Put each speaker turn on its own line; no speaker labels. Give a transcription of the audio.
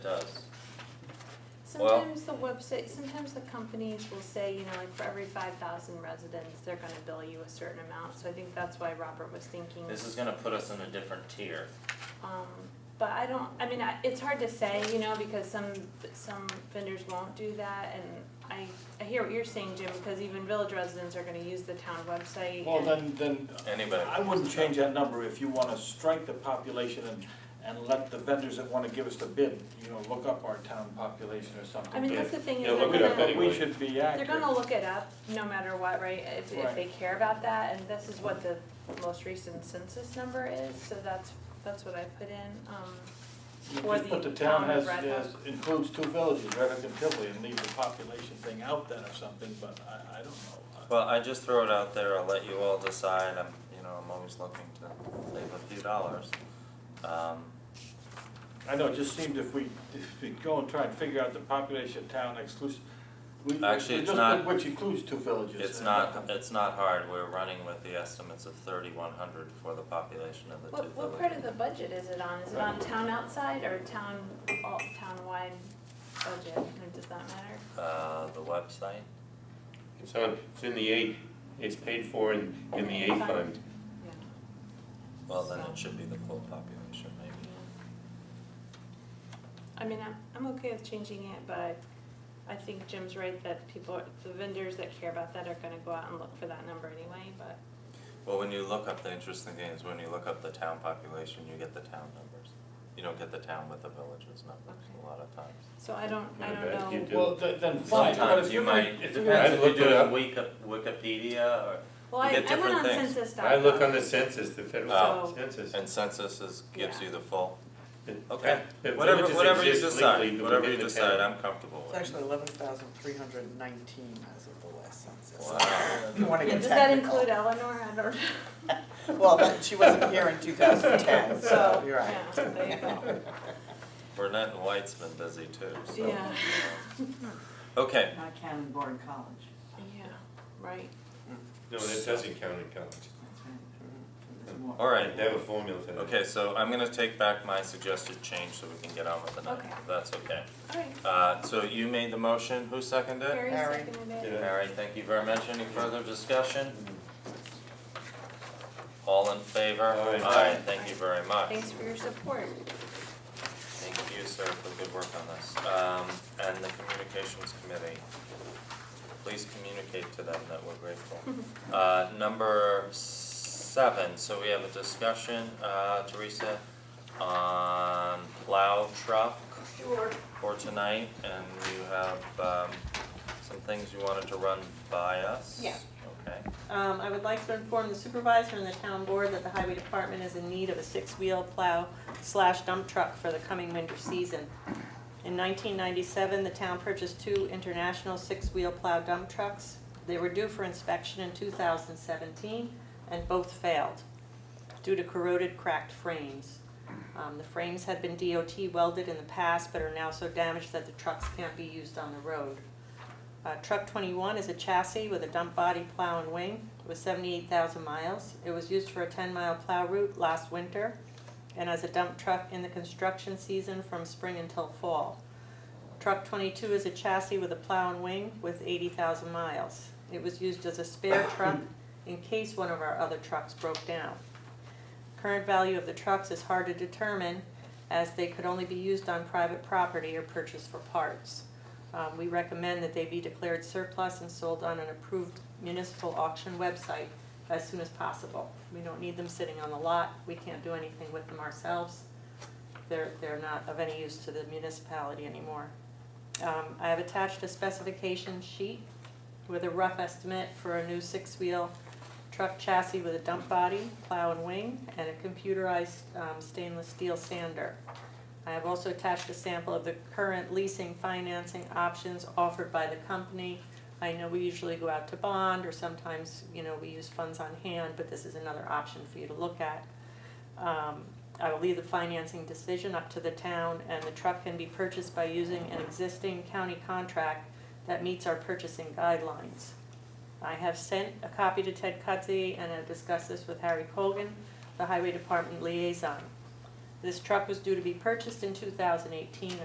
does. Well-
Sometimes the website, sometimes the companies will say, you know, like for every five thousand residents, they're gonna bill you a certain amount, so I think that's why Robert was thinking,
This is gonna put us in a different tier.
um, but I don't, I mean, I, it's hard to say, you know, because some, some vendors won't do that, and I, I hear what you're saying, Jim, because even village residents are gonna use the town website.
Well,
and-
then, then,
Anybody.
I wouldn't change that number if you wanna strike the population and, and let the vendors that wanna give us the bid, you know, look up our town population or something.
I mean, that's the thing, is
Yeah,
they're
look it up
gonna,
But
anyway.
we should be
they're
accurate.
gonna look it up, no matter what, right, if, if
Right.
they care about that, and this is what the most recent census number is, so that's, that's what I put in, um.
You
for
just put
the
the town
town
has,
of Red
has,
Hook.
includes two villages, Red Hook and Tivoli, and leave the population thing out then or something, but I, I don't know.
Well, I just throw it out there, I'll let you all decide, I'm, you know, I'm always looking to save a few dollars. Um,
I know, it just seemed if we, if we go and try and figure out the population of town exclusive, we, we just
Actually, it's
put
not-
which includes two villages.
it's
and
not, it's not hard, we're running with the estimates of thirty-one hundred for the population of the two
What,
villages.
what part of the budget is it on? Is it on town outside or town, all, town-wide budget? And Does that matter?
Uh, the website,
It's on, it's in the eight, it's paid for in, in the eight fund.
well, then it should be the full population, maybe.
I mean, I'm, I'm okay with changing it, but I think Jim's right that people, the vendors that care about that are gonna go out and look for that number anyway, but.
Well, when you look up, the interesting thing is when you look up the town population, you get the town numbers. You don't get the town with the villages numbers a lot of times.
So I don't, I don't
Yeah, you
know.
do.
Well, then, then fine, but
Sometimes
if
you
you're gonna,
might,
if
it
you're gonna.
depends if you
I've
do it on
looked
Wiki- Wikipedia or,
Well,
you
I, I
get
went
different
on
things.
census dot.
I look on the census, the federal
Oh.
census.
and census is, gives you the full.
The-
Okay,
the
whatever,
villages
whatever you
exist legally,
decide,
but
whatever you
within the
decide,
town.
I'm comfortable
It's
with.
actually eleven thousand three hundred nineteen as of the last census.
Wow,
If you wanna
Yeah,
get
does that
technical.
include Eleanor? I don't know.
Well, that, she wasn't here in two thousand ten, so you're right.
Yeah, there you go.
Burnett and White's been busy too, so.
Yeah.
Okay,
Not Cannon Board College,
Yeah, right.
No, that doesn't count in college.
that's
Mm-hmm.
right. There's more.
all right,
They have a formula for that.
okay, so I'm gonna take back my suggested change so we can get on with the night,
Okay.
if that's okay.
All right,
Uh, so you made the motion, who seconded it?
Harry
Harry.
seconded it.
Yeah.
All right, thank you very much, any further discussion? All in favor?
Aye.
Aye, thank you very much.
Thanks for your support.
Thank you, sir, for good work on this. Um, and the communications committee, please communicate to them that we're grateful. Uh, number seven, so we have a discussion, uh, Teresa, on plow truck
Sure.
for tonight, and you have, um, some things you wanted to run by us?
Yeah.
Okay,
Um, I would like to inform the supervisor and the town board that the highway department is in need of a six-wheel plow slash dump truck for the coming winter season. In nineteen ninety-seven, the town purchased two international six-wheel plow dump trucks. They were due for inspection in two thousand seventeen, and both failed due to corroded, cracked frames. Um, the frames had been DOT welded in the past, but are now so damaged that the trucks can't be used on the road. Uh, truck twenty-one is a chassis with a dump body, plow and wing, with seventy-eight thousand miles. It was used for a ten-mile plow route last winter, and as a dump truck in the construction season from spring until fall. Truck twenty-two is a chassis with a plow and wing with eighty thousand miles. It was used as a spare truck in case one of our other trucks broke down. Current value of the trucks is hard to determine, as they could only be used on private property or purchased for parts. Um, we recommend that they be declared surplus and sold on an approved municipal auction website as soon as possible. We don't need them sitting on the lot, we can't do anything with them ourselves. They're, they're not of any use to the municipality anymore. Um, I have attached a specification sheet with a rough estimate for a new six-wheel truck chassis with a dump body, plow and wing, and a computerized um, stainless steel sander. I have also attached a sample of the current leasing financing options offered by the company. I know we usually go out to bond, or sometimes, you know, we use funds on hand, but this is another option for you to look at. Um, I will leave the financing decision up to the town, and the truck can be purchased by using an existing county contract that meets our purchasing guidelines. I have sent a copy to Ted Cudsey and have discussed this with Harry Colgan, the Highway Department liaison. This truck was due to be purchased in two thousand eighteen